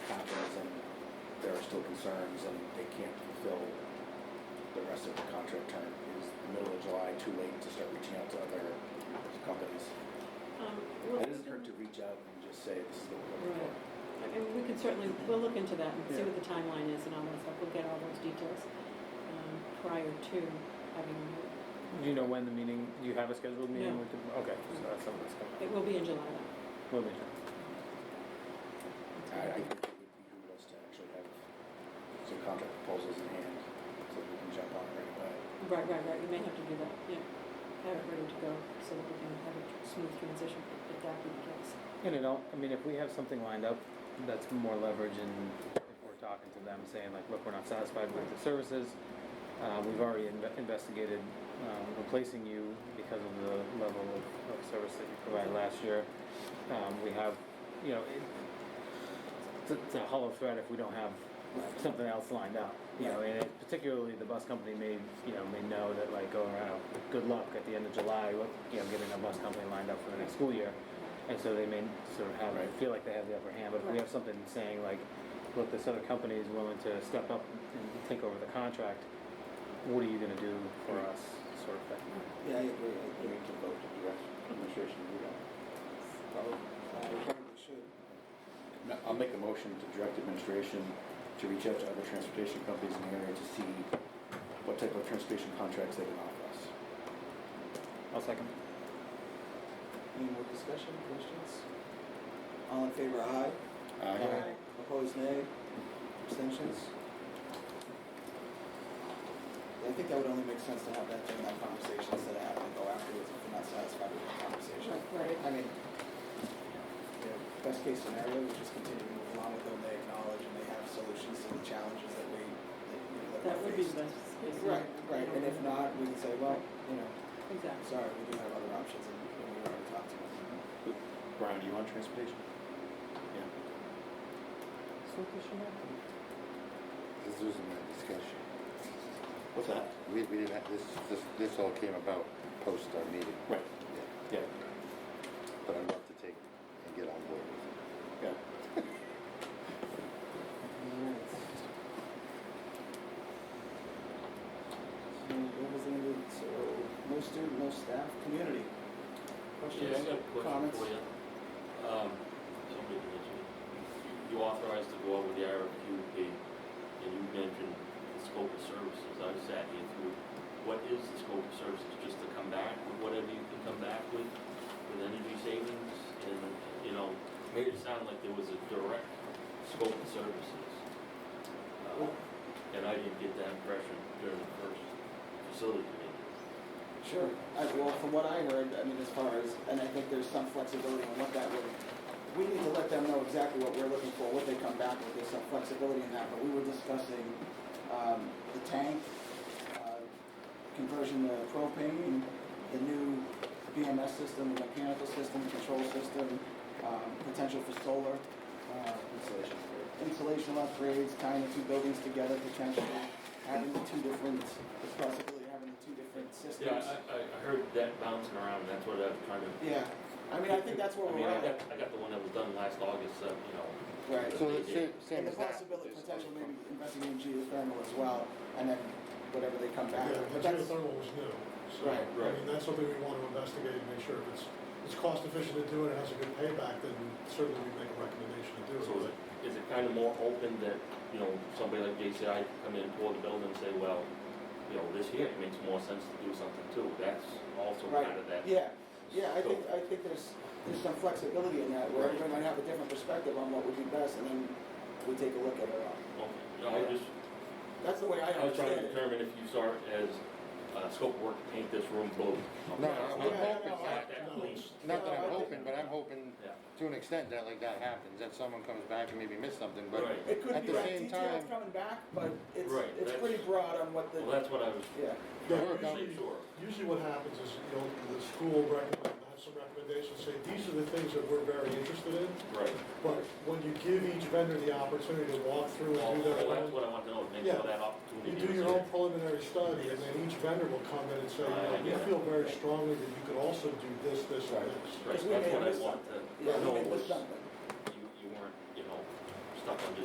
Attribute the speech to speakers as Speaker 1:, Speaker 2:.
Speaker 1: still concerns and they can't fulfill the rest of the contract term, is the middle of July too late to start reaching out to other companies?
Speaker 2: Um, we'll-
Speaker 1: It doesn't hurt to reach out and just say, this is what we're looking
Speaker 2: Right.
Speaker 1: for.
Speaker 2: I mean, we can certainly, we'll look into that and see
Speaker 1: Yeah.
Speaker 2: what the timeline is and all that stuff. We'll get all those details um, prior to having, a-
Speaker 3: Do you know when the meeting, do you have a scheduled meeting?
Speaker 2: No.
Speaker 3: with the- Okay, so that's something that's coming.
Speaker 2: it will be in July. though.
Speaker 3: up. We'll be sure.
Speaker 1: I, I think it would behoove us to actually have some contract proposals in hand, so we can jump on it right away.
Speaker 2: Right, right, right, you may have to do that, yeah. Have it ready to go so that we can have a tr- smooth transition if if that be the case.
Speaker 3: And it all, I mean, if we have something lined up, that's more leverage and if we're talking to them saying like, look, we're not satisfied with the services. Uh, we've already inve- investigated, um, replacing you because of the level of, of service that you provided last year. Um, we have, you know, it, it's a- it's a hollow threat if we don't have something else lined up. You know, and it- particularly the bus company may, you know, may know that like, oh, wow, good luck at the end of July, with, you know, getting a bus company lined up for the next school year. And so they may sort of have,
Speaker 1: Right.
Speaker 3: feel like they have the upper hand, but if we
Speaker 2: Right.
Speaker 3: have something saying like, look, this other company is willing to step up and take over the contract, what are you gonna do for
Speaker 1: Right.
Speaker 3: us, sort of thing?
Speaker 4: Yeah, I agree, I
Speaker 1: We
Speaker 4: agree.
Speaker 1: need to vote to direct administration to do that.
Speaker 4: I probably should.
Speaker 1: No, I'll make a motion to direct administration to reach out to other transportation companies in the area to see what type of transportation contracts they can offer us.
Speaker 3: I'll second.
Speaker 4: Any more discussion, questions? All in favor, aye.
Speaker 1: Aye.
Speaker 4: Opposed, nay. Abstentions? I think that would only make sense to have that during that conversation instead of having to go afterwards if you're not satisfied with the conversation.
Speaker 2: Right,
Speaker 4: I mean, yeah, best case scenario, we just continue to move along with them, they acknowledge and they have solutions to the challenges that we, that you know,
Speaker 2: That
Speaker 4: that
Speaker 2: would
Speaker 4: we
Speaker 2: be
Speaker 4: faced.
Speaker 2: the best. case
Speaker 4: Right,
Speaker 2: scenario.
Speaker 4: right, and if not, we can say, well, you know,
Speaker 2: Exactly.
Speaker 4: sorry, we do have other options and and we already talked to them.
Speaker 1: Brian, do you want transportation? Yeah.
Speaker 3: So, Christian,
Speaker 5: This isn't a discussion.
Speaker 1: What's that?
Speaker 5: We, we didn't have, this, this, this all came about post our meeting.
Speaker 1: Right,
Speaker 5: Yeah,
Speaker 1: yeah,
Speaker 5: But I'd love to take and get on board with it.
Speaker 1: yeah.
Speaker 4: So what was the end of, so, no student, no staff, community?
Speaker 6: Yeah, I
Speaker 4: Questions,
Speaker 6: got a question
Speaker 4: comments?
Speaker 6: for you. Um, somebody mentioned it. You- You authorized to go out with the RFQ, and you mentioned the scope of services. I sat here through, what is the scope of services? Just to come back with whatever you can come back with, with energy savings? And, you know, made it sound like there was a direct scope of services. Uh, And I didn't get that impression during the first facility meeting.
Speaker 4: Sure. I, well, from what I heard, I mean, as far as, and I think there's some flexibility on what that would, we need to let them know exactly what we're looking for, what they come back with, there's some flexibility in that, but we were discussing, um, the tank, uh, conversion to propane, the new BMS system, the mechanical system, control system, um, potential for solar, uh,
Speaker 1: Installation.
Speaker 4: insulation upgrades, tying the two buildings together potentially, having the two different, the possibility of having the two different systems.
Speaker 6: Yeah, I, I I heard that bouncing around, that's what I was trying to
Speaker 4: Yeah, I mean, I think that's where
Speaker 6: I
Speaker 4: we're
Speaker 6: mean, I
Speaker 4: at.
Speaker 6: got, I got the one that was done last August, uh, you know,
Speaker 4: Right.
Speaker 5: So it's same, same
Speaker 4: And the
Speaker 5: as that.
Speaker 4: possibility,
Speaker 5: Just-
Speaker 4: potential maybe investing in geothermal as well, and then whatever they come back
Speaker 7: Yeah,
Speaker 4: with.
Speaker 7: the
Speaker 4: But that's,
Speaker 7: geothermal was new, so,
Speaker 4: Right,
Speaker 6: right.
Speaker 7: I mean, that's something we want to investigate and make sure if it's, it's cost efficient to do it, and has a good payback, then certainly we make a recommendation to do
Speaker 6: so is
Speaker 7: it.
Speaker 6: it, is it kind of more open that, you know, somebody like JCI can come in, tour the building and say, well, you know, this here, it makes more sense to do something too, that's also kind of
Speaker 4: right,
Speaker 6: that.
Speaker 4: yeah, yeah, I
Speaker 6: So-
Speaker 4: think, I think there's, there's some flexibility in that, where
Speaker 6: Right.
Speaker 4: everyone might have a different perspective on what would be best, and then we take a look at it all.
Speaker 6: Okay, you know, I just,
Speaker 4: That's the way I
Speaker 6: I was trying
Speaker 4: understand
Speaker 6: to
Speaker 4: it.
Speaker 6: determine if you start as, uh, scope of work to paint this room blue.
Speaker 5: No, I'm
Speaker 6: It's
Speaker 5: hoping
Speaker 6: not
Speaker 5: that-
Speaker 6: that
Speaker 7: no.
Speaker 6: clean.
Speaker 5: Not that I'm hoping, but I'm hoping
Speaker 6: Yeah.
Speaker 5: to an extent that like that happens, that someone comes back and maybe missed something, but
Speaker 6: Right.
Speaker 4: It could
Speaker 5: at
Speaker 4: be
Speaker 5: the
Speaker 4: right
Speaker 5: same
Speaker 4: details
Speaker 5: time,
Speaker 4: coming back, but it's,
Speaker 6: Right,
Speaker 4: it's
Speaker 6: that's-
Speaker 4: pretty broad on what
Speaker 6: Well,
Speaker 4: the,
Speaker 6: that's what I was,
Speaker 4: yeah.
Speaker 7: Yeah,
Speaker 5: Work out.
Speaker 7: usually- Usually what happens is, you know, the school recommend, have some recommendations, say, these are the things that we're very interested in,
Speaker 6: right.
Speaker 7: but when you give each vendor the opportunity to walk through and do their
Speaker 6: Well, that's
Speaker 7: own
Speaker 6: what I want to know, make sure that opportunity.
Speaker 7: You do
Speaker 6: is
Speaker 7: your
Speaker 6: there.
Speaker 7: own preliminary study, and then each vendor will come in and say, you know, we feel very strongly that you could also do this, this, and this.
Speaker 6: Right,
Speaker 4: Because we
Speaker 6: that's
Speaker 4: may
Speaker 6: what I
Speaker 4: miss
Speaker 6: want
Speaker 4: something.
Speaker 6: to
Speaker 4: Yeah, we
Speaker 6: know
Speaker 4: may miss
Speaker 6: was,
Speaker 4: something.
Speaker 6: you, you weren't, you know, stuck on just